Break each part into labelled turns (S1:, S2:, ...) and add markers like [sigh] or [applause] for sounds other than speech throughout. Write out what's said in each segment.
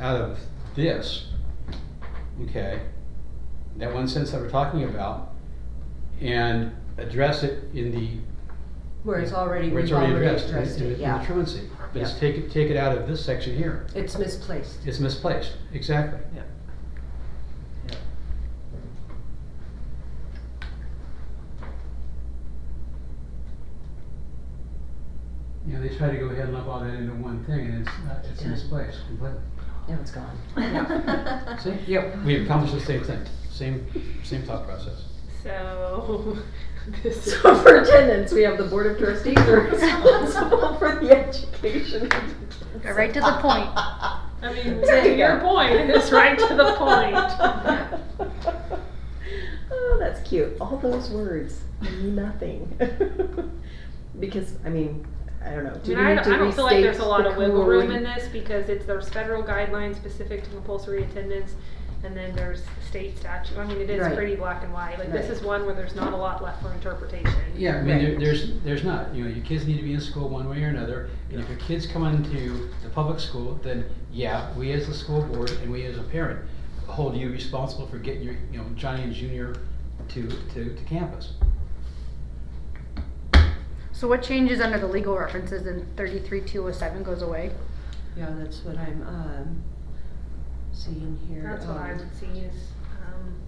S1: out of this, okay, that one sentence that we're talking about, and address it in the,
S2: Where it's already,
S1: where it's
S2: we've
S1: already
S2: already
S1: addressed, in
S2: addressed
S1: in-
S2: it,
S1: in the
S2: yeah.
S1: truancy. But it's
S2: Yeah.
S1: take it, take it out of this section here.
S2: It's misplaced.
S1: It's misplaced, exactly.
S2: Yeah.
S1: You know, they try to go ahead and lump all that into one thing, and it's, not- it's
S2: Yeah.
S1: misplaced completely.
S2: Now it's gone.
S3: [laughs]
S1: See?
S2: [laughs] Yep.
S1: We accomplished the same thing, same, same thought process.
S4: So, [laughs] this is.
S5: So for
S4: [laughs]
S5: attendance, we have the Board of Trustees are responsible for the education.
S3: Go right to the
S6: [laughs]
S3: point.
S4: I mean,
S5: There
S4: to
S5: you
S4: your
S5: go.
S4: point, it's right to the point.
S6: [laughs]
S5: Oh, that's cute. All those words mean nothing. [laughs] Because, I mean, I don't know.
S4: [laughs] I
S5: do
S4: mean,
S5: we
S4: I
S5: need
S4: don't,
S5: to
S4: I don't feel like there's a
S5: restate
S4: lot
S5: the
S4: of wiggle room
S5: corollary?
S4: in this because it's, there's federal guidelines specific to compulsory attendance and then there's state statute. I mean, it is
S2: Right.
S4: pretty black and white. Like, this
S2: Right.
S4: is one where there's not a lot left for interpretation.
S1: Yeah, I mean, there,
S2: Right.
S1: there's, there's not, you know, your kids need to be in school one way or another, and if your kids come into the public school, then yeah, we as the school board and we as a parent hold you responsible for getting your, you know, Johnny and Junior to, to, to campus.
S3: So what changes under the legal references in thirty-three two oh seven goes away?
S2: Yeah, that's what I'm, um, seeing here.
S4: That's what I would see is, um,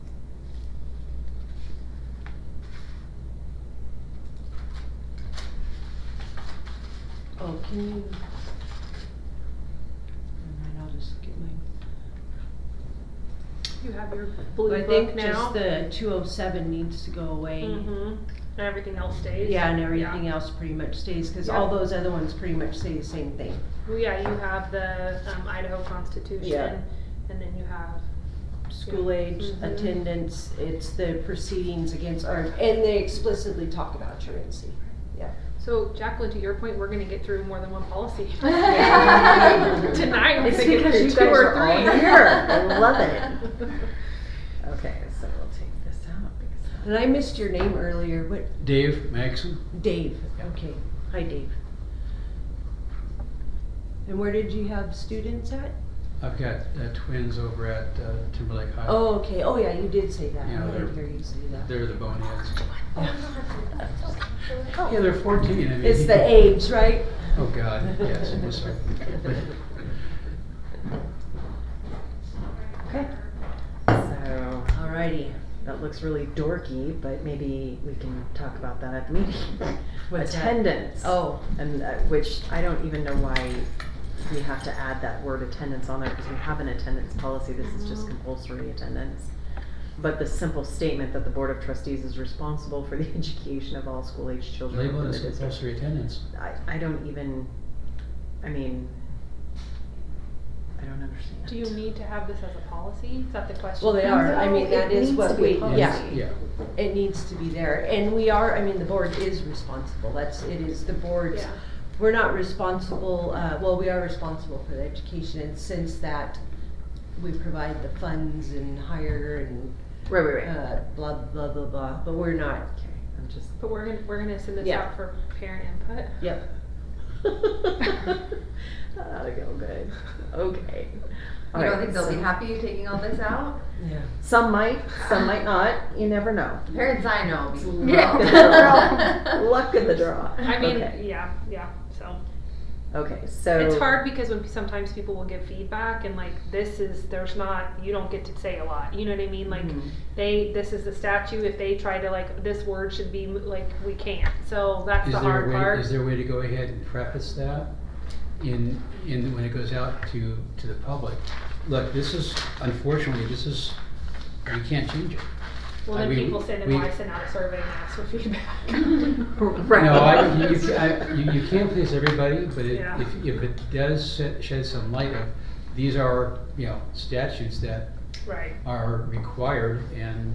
S2: Oh, can you? Alright, I'll just get my.
S4: you have your blue
S6: I
S4: book now.
S6: think just the two oh seven needs to go away.
S4: Mhm. And everything else stays.
S6: Yeah, and everything else pretty much stays, cause all
S4: Yeah.
S6: those other ones pretty much say the same thing.
S4: Well, yeah, you have the, um, Idaho
S5: Yeah.
S4: Constitution and then you have
S6: School age,
S5: Mm-hmm.
S4: Mhm.
S6: attendance, it's the proceedings against, or, and they explicitly talk about truancy.
S4: So Jacqueline, to your point, we're gonna get through more than
S5: [laughs]
S4: one policy. [laughs]
S5: Yeah.
S4: Tonight, we're
S5: It's
S4: gonna get
S5: because
S4: through
S5: you
S4: two
S5: guys
S4: or
S5: are all
S4: three.
S5: here.
S4: [laughs]
S5: I love it. Okay, so we'll take this out because.
S6: And I missed your name earlier, what,
S1: Dave Maxon,
S6: Dave, okay, hi Dave. And where did you have students at?
S1: I've got uh, twins over at uh, Timberlake High.
S6: Oh, okay, oh yeah, you did say that,
S1: Yeah,
S6: I
S1: they're-
S6: did hear you say that.
S1: They're the boneheads. Yeah, they're fourteen, I mean.
S6: [laughs] Oh. It's the age, right?
S1: Oh, God, yes, I'm
S6: [laughs]
S1: sorry.
S6: Okay.
S5: So,
S6: Alrighty,
S5: that looks really dorky, but maybe we can talk about that at the meeting.
S6: What's that?
S5: Attendance.
S6: oh,
S5: And uh, which I don't even know why we have to add that word attendance on there because we have an attendance policy. This is just compulsory attendance. But the simple statement that the Board of Trustees is responsible for the [laughs] education of all school age children
S1: Label it
S5: within the
S1: as
S5: district.
S1: compulsory attendance.
S5: I, I don't even, I mean, I don't understand.
S4: Do you need to have this as a policy? Is that the question?
S6: well, they are, I
S5: No,
S6: mean,
S5: it
S6: that is
S5: needs to
S6: what
S5: be
S6: we,
S5: public.
S6: yeah.
S5: Yeah.
S1: Yeah,
S6: It needs to be there, and we are, I mean, the board is responsible, that's, it is the board's,
S4: Yeah.
S6: we're not responsible, uh, well, we are responsible for the education, and since that, we provide the funds and hire and,
S5: Right, right, right.
S6: uh, blah, blah, blah, blah, but we're not,
S5: Okay, I'm just,
S4: But we're gonna, we're gonna send this
S6: Yeah.
S4: out for parent input.
S5: [laughs]
S6: yep.
S5: that ought to go Ah, good. Okay.
S2: You
S5: All
S2: don't
S5: right,
S2: think they'll be
S5: so-
S2: happy you taking all this out?
S6: Yeah.
S5: Some might, some might not. You never know.
S2: Parents I
S5: [laughs]
S2: know. be-
S3: Yeah.
S2: [laughs]
S5: Luck of the draw.
S4: I mean,
S5: okay,
S4: yeah, yeah, so.
S5: okay, so
S4: It's hard because when sometimes people will give feedback and like, this is, there's not, you don't get to say a lot, you know what I mean?
S6: Mm-hmm.
S4: Like,
S5: Mhm.
S4: they, this is the statute, if they try to like, this word should be, like, we can't, so that's
S1: Is
S4: the
S1: there a
S4: hard
S1: way, is
S4: part.
S1: there a way to go ahead and preface that in, in, when it goes out to, to the public? Look, this is, unfortunately, this is, we can't change it.
S4: Well,
S1: I
S4: then
S1: mean,
S4: people send,
S1: we-
S4: and I send out a survey and ask for feedback.
S1: [laughs]
S4: [laughs]
S5: Right.
S1: No, I, you, you- I, you, you can't please everybody, but it-
S4: Yeah.
S1: if, if it does shed- shed some light of, these are, you know, statutes that
S4: Right.
S1: are required and,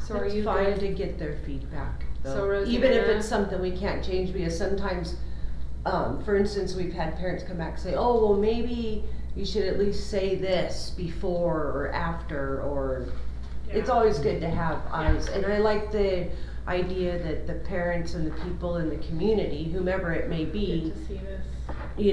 S4: So are
S6: It's
S4: you
S6: fine
S4: good?
S6: to get their feedback,
S4: So
S6: though, even if
S4: Rosanna-
S6: it's something we can't change, because sometimes, um, for instance, we've had parents come back and say, oh, well, maybe you should at least say this before or after, or, it's
S4: Yeah.
S6: always good to have eyes, and I like the idea that the parents and the people in the community, whomever it may
S4: Get
S6: be,
S4: to see this.